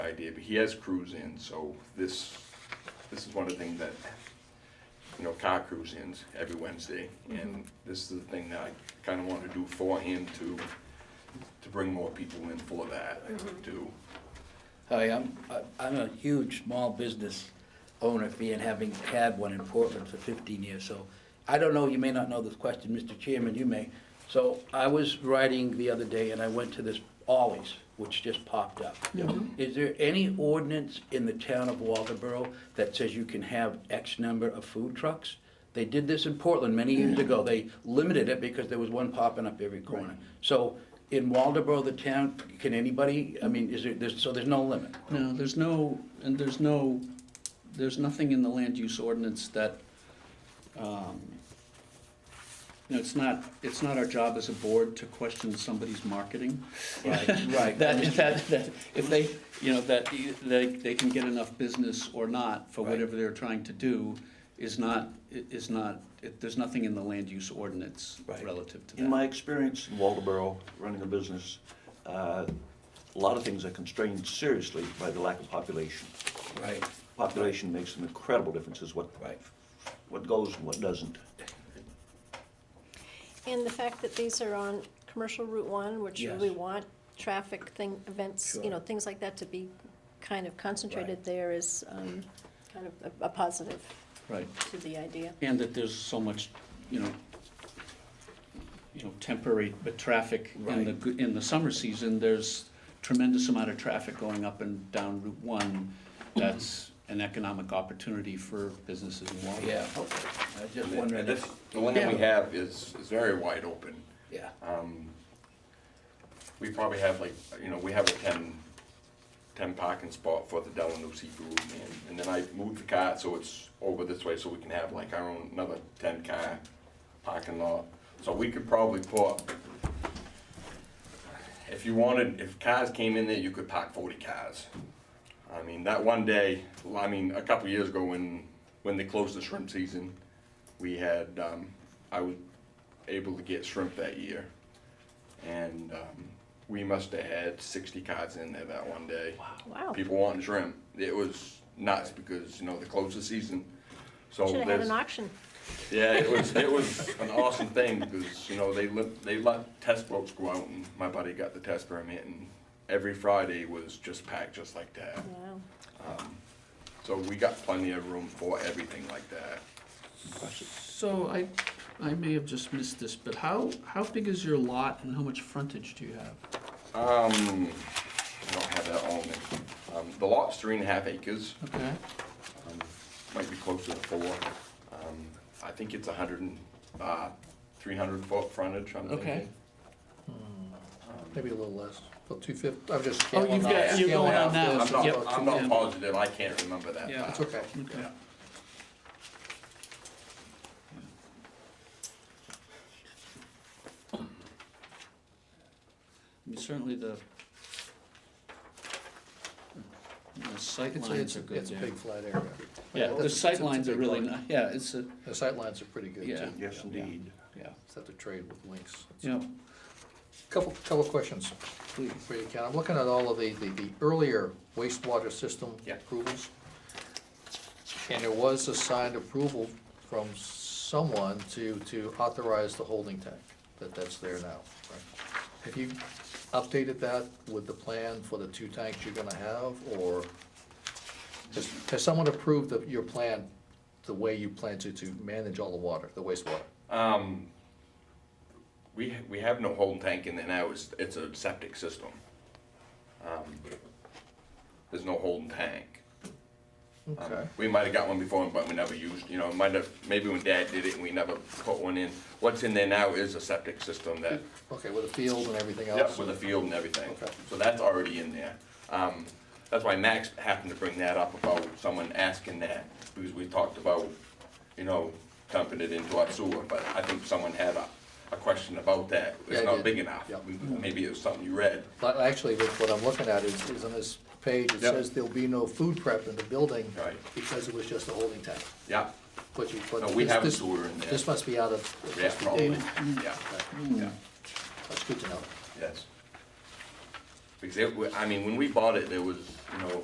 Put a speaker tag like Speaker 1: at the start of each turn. Speaker 1: idea, but he has crews in, so this, this is one of the things that, you know, car crews in every Wednesday. And this is the thing that I kinda wanted to do for him to, to bring more people in for that, to,
Speaker 2: Hi, I'm, I- I'm a huge small business owner, being, having had one in Portland for 15 years, so I don't know, you may not know this question, Mr. Chairman, you may. So I was riding the other day and I went to this Ollie's, which just popped up. Is there any ordinance in the town of Walterboro that says you can have X number of food trucks? They did this in Portland many years ago. They limited it because there was one popping up every corner. So in Waldeboro, the town, can anybody, I mean, is there, there's, so there's no limit?
Speaker 3: No, there's no, and there's no, there's nothing in the land use ordinance that, um, you know, it's not, it's not our job as a board to question somebody's marketing.
Speaker 2: Right, right.
Speaker 3: That, that, that, if they, you know, that, e- they, they can get enough business or not for
Speaker 2: Right.
Speaker 3: whatever they're trying to do is not, i- is not, it, there's nothing in the land use ordinance
Speaker 4: Right.
Speaker 3: relative to that.
Speaker 4: In my experience in Waldeboro, running a business, uh, a lot of things are constrained seriously by the lack of population.
Speaker 2: Right.
Speaker 4: Population makes an incredible difference as what,
Speaker 2: Right.
Speaker 4: what goes and what doesn't.
Speaker 5: And the fact that these are on commercial Route One, which
Speaker 2: Yes.
Speaker 5: we want traffic thing, events, you know,
Speaker 2: Sure.
Speaker 5: things like that to be kind of concentrated there is um, kind of a- a positive
Speaker 3: Right.
Speaker 5: to the idea.
Speaker 3: And that there's so much, you know, you know, temporary, but traffic in the,
Speaker 2: Right.
Speaker 3: good- in the summer season, there's tremendous amount of traffic going up and down Route One. That's an economic opportunity for businesses in Waltham.
Speaker 2: Yeah, okay. I was just
Speaker 1: and
Speaker 2: wondering,
Speaker 1: this,
Speaker 2: if-
Speaker 1: the one that we have is, is very wide open.
Speaker 2: yeah,
Speaker 1: We probably have like, you know, we have a 10 10 parking spot for the Delanucci group, and, and then I moved the car, so it's over this way, so we can have like our own, another ten car parking lot. So we could probably put, if you wanted, if cars came in there, you could park forty cars. I mean, that one day, well, I mean, a couple years ago when, when they closed the shrimp season, we had, um, I was able to get shrimp that year. And, um, we must have had sixty cars in there that one day.
Speaker 5: Wow.
Speaker 1: People wanting shrimp. It was nuts because, you know, they closed the season. So
Speaker 5: Should have had
Speaker 1: there's,
Speaker 5: an auction.
Speaker 1: yeah, it was, it was an awesome thing because, you know, they let, they let test boats go out and my buddy got the test permit and every Friday was just packed just like that.
Speaker 5: Wow.
Speaker 1: So we got plenty of room for everything like that.
Speaker 3: So I, I may have just missed this, but how, how big is your lot and how much frontage do you have?
Speaker 1: Um, I don't have that on me. Um, the lot's three and a half acres, um,
Speaker 3: Okay,
Speaker 1: might be closer to four. Um, I think it's a hundred and, uh, three hundred foot frontage, I'm thinking.
Speaker 3: okay.
Speaker 6: Maybe a little less, about two fifty, I'm just.
Speaker 3: Oh, you've
Speaker 6: scaling
Speaker 3: got,
Speaker 6: off-
Speaker 3: you're
Speaker 6: scaling
Speaker 3: going on
Speaker 6: off
Speaker 3: now.
Speaker 6: this.
Speaker 1: Uh, I'm
Speaker 3: Yep.
Speaker 1: not, I'm not positive, I can't remember that.
Speaker 3: Yeah.
Speaker 1: far.
Speaker 6: It's okay.
Speaker 3: Okay. I mean, Certainly the, the sight
Speaker 6: It's, a-
Speaker 3: lines
Speaker 6: it's,
Speaker 3: are
Speaker 6: a-
Speaker 3: good
Speaker 6: it's a
Speaker 3: there.
Speaker 6: big flat area.
Speaker 3: Yeah,
Speaker 6: Well,
Speaker 3: the
Speaker 6: it's-
Speaker 3: sight
Speaker 6: it's a
Speaker 3: lines are
Speaker 6: big
Speaker 3: really,
Speaker 6: lot.
Speaker 3: ni- yeah, it's a,
Speaker 6: The sight lines are pretty good
Speaker 3: Yeah.
Speaker 6: too.
Speaker 4: Yes, indeed.
Speaker 3: yeah,
Speaker 6: Just have to trade with links.
Speaker 3: yeah,
Speaker 6: Couple, couple questions
Speaker 3: please.
Speaker 6: for you, Ken. I'm looking at all of the, the, the earlier wastewater system
Speaker 1: Yeah.
Speaker 6: approvals. And there was a signed approval from someone to, to authorize the holding tank, that that's there now. right? Have you updated that with the plan for the two tanks you're gonna have, or has, has someone approved of your plan, the way you plan to, to manage all the water, the wastewater?
Speaker 1: Um, we, we have no holding tank in there now, it's, it's a septic system. Um, There's no holding tank. Um,
Speaker 6: Okay.
Speaker 1: We might have got one before, but we never used, you know, might have, maybe when dad did it, we never put one in. What's in there now is a septic system that,
Speaker 6: Okay, with the field and everything
Speaker 1: yep,
Speaker 6: else?
Speaker 1: with a field and everything.
Speaker 6: Okay.
Speaker 1: So that's already in there. Um, that's why Max happened to bring that up about someone asking that, because we talked about, you know, dumping it into our sewer, but I think someone had a, a question about that.
Speaker 6: Yeah,
Speaker 1: It's
Speaker 6: I
Speaker 1: not
Speaker 6: did.
Speaker 1: big enough.
Speaker 6: Yep.
Speaker 1: We- Maybe it was something you read.
Speaker 6: But actually, that's what I'm looking at is, is on this page, it
Speaker 1: Yep.
Speaker 6: says there'll be no food prep in the building.
Speaker 1: Right.
Speaker 6: Because it was just a holding tank,
Speaker 1: Yeah,
Speaker 6: but you, but.
Speaker 1: No, we
Speaker 6: this-
Speaker 1: have a
Speaker 6: this-
Speaker 1: sewer in there.
Speaker 6: This must be out of, it
Speaker 1: yeah,
Speaker 6: must be
Speaker 1: probably,
Speaker 6: dated.
Speaker 1: yeah, yeah.
Speaker 6: That's good to know.
Speaker 1: Yes. Because it, wa- I mean, when we bought it, there was, you know,